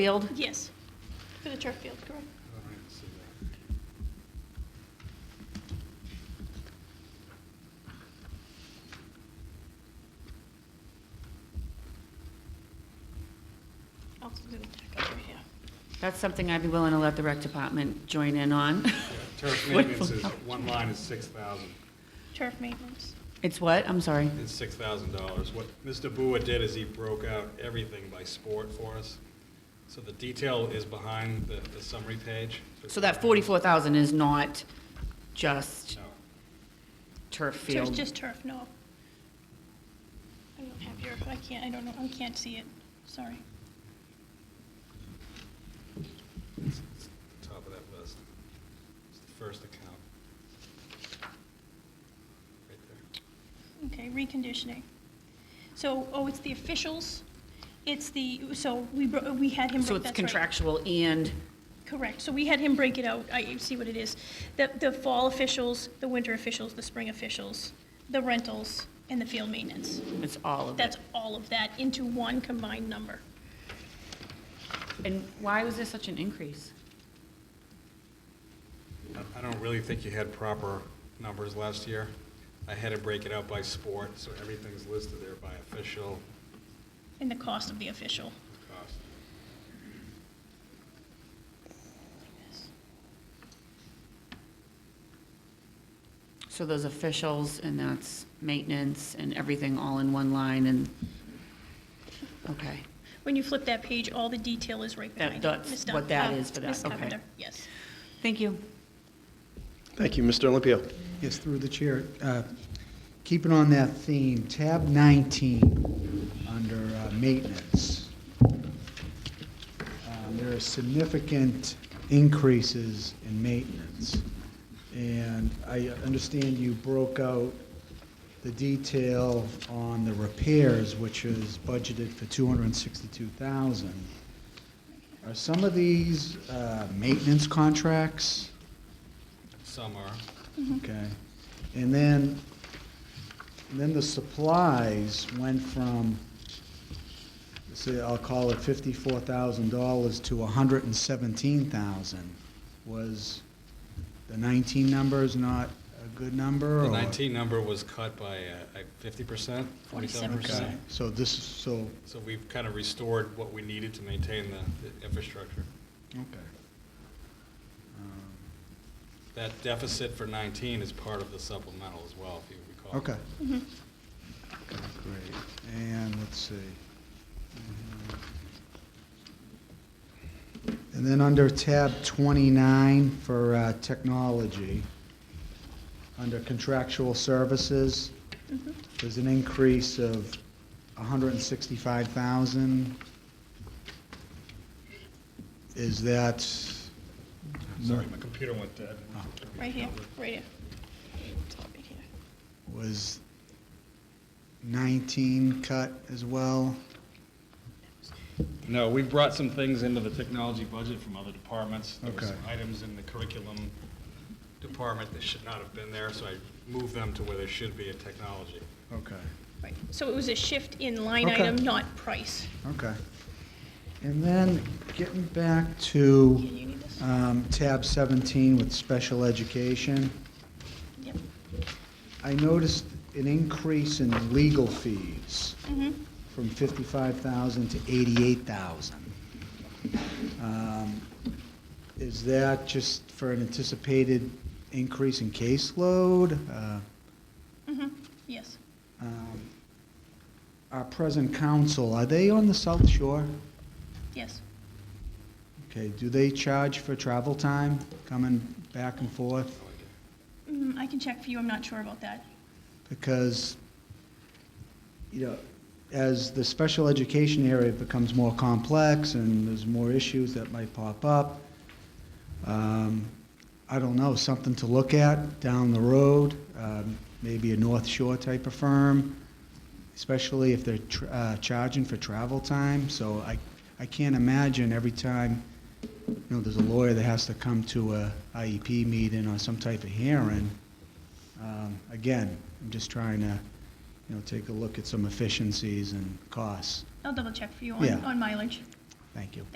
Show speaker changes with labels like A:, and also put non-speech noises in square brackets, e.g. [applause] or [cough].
A: field?
B: Yes, for the turf field, correct. I'll do the back over here.
A: That's something I'd be willing to let the rec department join in on. [laughs]
C: Turf maintenance is, one line is six thousand.
B: Turf maintenance.
A: It's what? I'm sorry.
C: It's six thousand dollars. What Mr. Bua did is he broke out everything by sport for us. So the detail is behind the, the summary page.
A: So that 44,000 is not just
C: No.
A: turf
B: So it's
A: field?
B: just turf, no. I don't have your, I can't, I don't know, I can't see it, sorry.
C: It's it's the top of that list. It's the first account. Right there.
B: Okay, reconditioning. So, oh, it's the officials, it's the, so we, bro- we had him.
A: So
B: break-
A: it's
B: that's right.
A: contractual and,
B: Correct, so we had him break it out, I see what it is. The, the fall officials, the winter officials, the spring officials, the rentals, and the field maintenance.
A: it's all of it?
B: That's all of that into one combined number.
A: And why was there such an increase?
C: I- I don't really think you had proper numbers last year. I had to break it out by sport, so everything's listed there by official
B: And the cost of the official.
C: cost.
A: So those officials and that's maintenance and everything all in one line and, okay.
B: When you flip that page, all the detail is right
A: That-
B: behind it.
A: that's
B: Ms. Dun-
A: what that
B: uh,
A: is for that,
B: Ms.
A: okay.
B: Carpenter, Yes.
A: Thank you.
D: Thank you, Mr. Olympio.
E: Yes, through the chair. Uh, Keeping on that theme, tab 19, under uh, maintenance, um, there are significant increases in maintenance. And I understand you broke out the detail on the repairs, which is budgeted for 262,000. Are some of these uh, maintenance contracts?
C: Some are.
E: Okay. And then, then the supplies went from, say, I'll call it fifty-four thousand dollars to a hundred and seventeen thousand. Was the nineteen number is not a good number, or?
C: The 19 number was cut by uh, fifty percent, forty-seven
E: Okay,
C: percent.
E: so this, is so,
C: So we've kind of restored what we needed to maintain the the infrastructure.
E: okay. Um,
C: That deficit for 19 is part of the supplemental as well, if you recall.
E: Okay. Okay, great. And let's see. Mm-hmm. And then under tab 29 for uh, technology, under contractual services, there's an increase of 165,000. Is that?
C: Sorry, my computer went dead.
B: Right here, right here. It's all right here.
E: Was 19 cut as well?
C: No, we brought some things into the technology budget from other departments. There were
E: Okay.
C: some items in the curriculum department that should not have been there, so I moved them to where they should be in technology.
E: Okay.
B: Right, so it was a shift in line
E: Okay.
B: item, not price.
E: Okay. And then getting back to
B: Can you need this?
E: um, tab 17 with special education,
B: Yep.
E: I noticed an increase in legal fees
B: Mm-hmm.
E: from 55,000 to 88,000. Um, Is that just for an anticipated increase in caseload? Uh,
B: Mm-hmm, yes.
E: um, Our present counsel, are they on the South Shore?
B: Yes,
E: Okay, do they charge for travel time, coming back and forth?
B: Mm, I can check for you, I'm not sure about that.
E: Because, you know, as the special education area becomes more complex and there's more issues that might pop up, um, I don't know, something to look at down the road, um, maybe a North Shore type of firm, especially if they're tr- uh, charging for travel time. So I, I can't imagine every time, you know, there's a lawyer that has to come to a IEP meeting or some type of hearing. Um, Again, I'm just trying to, you know, take a look at some efficiencies and costs.
B: I'll double check for you on,
E: Yeah.
B: on mileage.
E: Thank you.